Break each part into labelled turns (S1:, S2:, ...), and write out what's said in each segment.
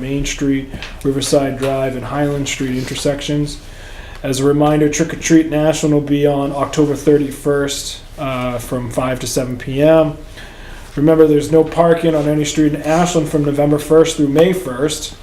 S1: Main Street, Riverside Drive, and Highland Street intersections. As a reminder, Trick or Treat National will be on October 31st uh, from 5 to 7 p.m. Remember, there's no parking on any street in Ashland from November 1st through May 1st.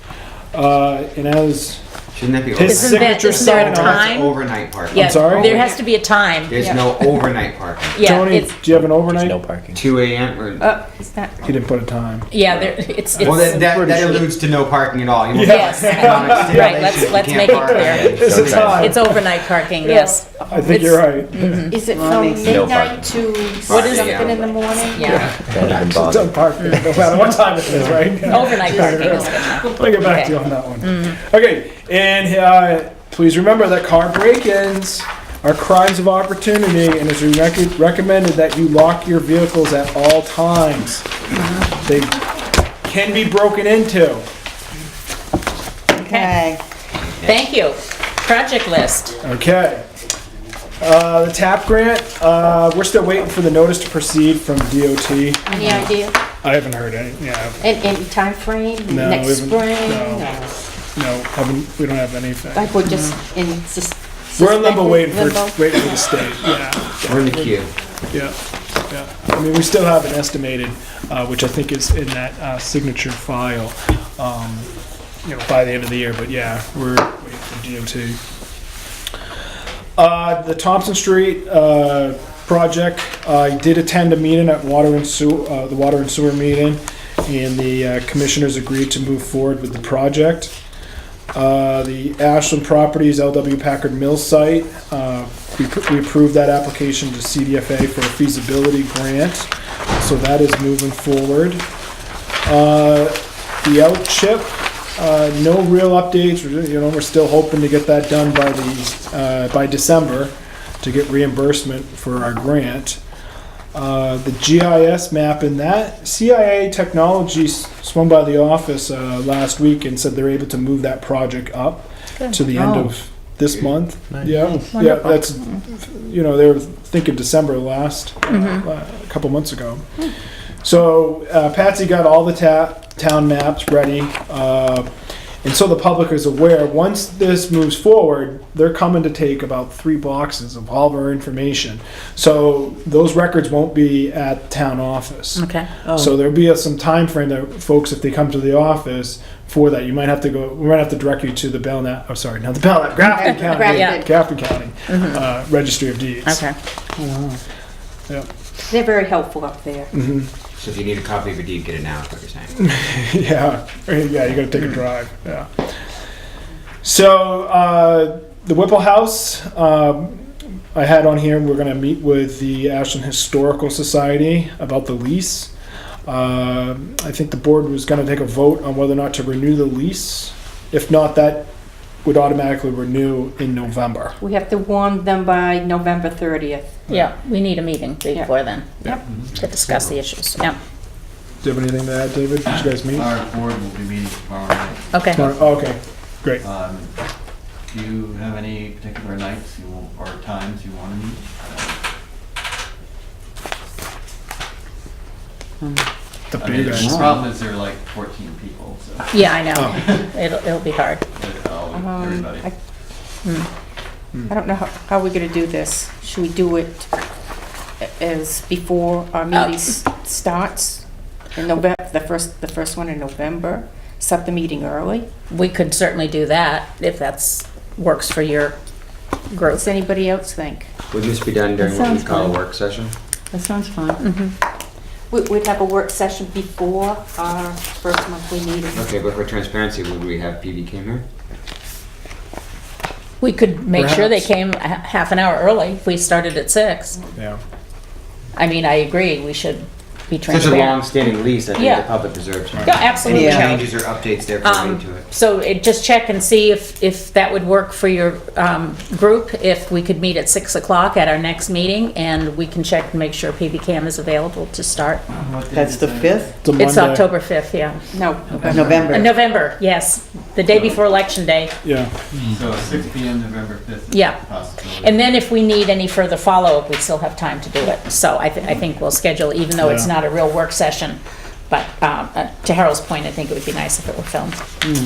S1: Uh, and as
S2: Shouldn't that be
S1: His
S2: overnight?
S1: Isn't that- signature isn't there a sign on-
S2: That's
S3: time?
S2: Overnight parking.
S3: Yeah,
S1: sorry?
S3: there has to be a time.
S2: There's
S3: Yeah.
S2: no overnight parking.
S3: Yeah,
S1: Tony,
S3: it's,
S1: do you have an overnight?
S4: There's no parking.
S2: Two AM or, well,
S3: uh, it's not,
S1: He didn't put a time.
S3: yeah, there, it's,
S2: that,
S3: it's,
S2: that, that alludes to no parking at all. You won't
S3: Yes.
S2: have economic
S3: Right,
S2: stimulation
S3: let's-
S2: if you
S3: let's
S2: can't
S3: make it
S2: park.
S3: clear.
S2: Yeah,
S1: It's a
S2: so
S1: time.
S3: it's overnight parking, yes.
S1: I think you're right.
S5: Is it from midnight to
S2: What is-
S5: something in the morning?
S3: Yeah,
S4: Don't even
S1: It's
S4: bother.
S1: parking, no matter what time it is, right?
S3: overnight parking is good.
S1: I'll get back to you on that one. Okay, and uh, please remember that car break-ins are crimes of opportunity, and it's rec- recommended that you lock your vehicles at all times. They can be broken into.
S5: Okay.
S3: Thank you. Project list.
S1: Okay. Uh, the TAP grant, uh, we're still waiting for the notice to proceed from DOT.
S5: Any idea?
S1: I haven't heard any. Yeah,
S5: And any timeframe,
S1: No, we
S5: next
S1: haven't-
S5: spring?
S1: no.
S5: or-
S1: no, haven't, we don't have anything.
S5: Like we're just in sus-
S1: We're in limbo
S5: suspended
S1: waiting for,
S5: limbo?
S1: waiting for the state, yeah.
S2: We're in the queue.
S1: Yeah, yeah. I mean, we still have an estimated, uh, which I think is in that uh, signature file, um, you know, by the end of the year, but yeah, we're waiting for DOT. Uh, The Thompson Street uh, project, I did attend a meeting at Water and Sewer, uh, the Water and Sewer meeting, and the uh, commissioners agreed to move forward with the project. Uh, The Ashland Properties LW Packard Mill site, uh, we we approved that application to CDFA for a feasibility grant, so that is moving forward. Uh, The out chip, uh, no real updates, We're- you know, we're still hoping to get that done by the, uh, by December to get reimbursement for our grant. Uh, The GIS map in that, CIA Technology s- swung by the office uh, last week and said they're able to move that project up to the end of this month. Yeah, yeah, that's, you know, they were thinking December last, uh, a couple months ago. So uh, Patsy got all the ta- town maps ready, uh, and so the public is aware. Once this moves forward, they're coming to take about three boxes of all of our information. So those records won't be at town office.
S3: Okay.
S1: So there'll be a, some time frame that folks, if they come to the office for that, you might have to go. We might have to direct you to the Belknap. Oh, sorry, not the Belknap, Grafton County, Grafton
S5: Grafton.
S1: County uh, Registry of Deeds.
S3: Okay.
S1: Yep.
S5: They're very helpful up there.
S2: So if you need a copy of your deed, get it now, is what you're saying.
S1: Yeah, yeah, you gotta take a drive, yeah. So, uh, the Whipple House, um, I had on here, we're gonna meet with the Ashland Historical Society about the lease. Uh, I think the board was gonna take a vote on whether or not to renew the lease. If not, that would automatically renew in November.
S5: We have to warn them by November 30th.
S3: Yeah, we need a meeting before then.
S5: Yep.
S3: To discuss the issues, yeah.
S1: Do you have anything to add, David? Did you guys meet?
S3: Uh,
S6: Our board will be meeting tomorrow night.
S3: Okay.
S1: Oh, Okay, great.
S6: Um, Do you have any particular nights you will- or times you want to meet?
S1: The
S6: I mean,
S1: big
S6: the
S1: guys.
S6: problem is there are like 14 people, so
S3: Yeah, I
S1: Oh.
S3: know. It'll, it'll be hard.
S6: they're all-
S5: Um,
S6: everybody.
S5: I
S1: Hmm.
S5: I don't know how, how we're gonna do this. Should we do it a- as before our meeting s- starts? In November, the first, the first one in November, set the meeting early?
S3: We could certainly do that if that's, works for your group.
S5: What's anybody else think?
S2: Would this be done during what we call a work session?
S5: That sounds fine. We, we'd have a work session before our first monthly meeting.
S2: Okay, but for transparency, would we have PV came here?
S3: We could make sure they
S1: Perhaps.
S3: came a- half an hour early if we started at six.
S1: Yeah.
S3: I mean, I agree, we should be
S2: Such a
S3: transparent.
S2: long-standing lease, I think
S3: Yeah.
S2: the public deserves it.
S3: Yeah, absolutely.
S2: Any changes or updates there
S3: Um,
S2: related to it?
S3: So it- just check and see if, if that would work for your um, group, if we could meet at 6 o'clock at our next meeting, and we can check and make sure PB Cam is available to start.
S6: What day
S7: That's
S6: is
S7: the
S6: it?
S7: 5th
S1: a
S3: It's
S1: Monday.
S3: October 5th, yeah.
S5: No,
S7: of
S3: Uh,
S7: November.
S3: November, yes, the day before Election Day.
S1: Yeah,
S6: So 6 PM November 5th is
S3: Yeah.
S6: a possibility.
S3: And then if we need any further follow-up, we still have time to do it. So I, thi- I think we'll schedule, even though it's
S1: Yeah.
S3: not a real work session, But um, uh, to Harold's point, I think it would be nice if it were filmed.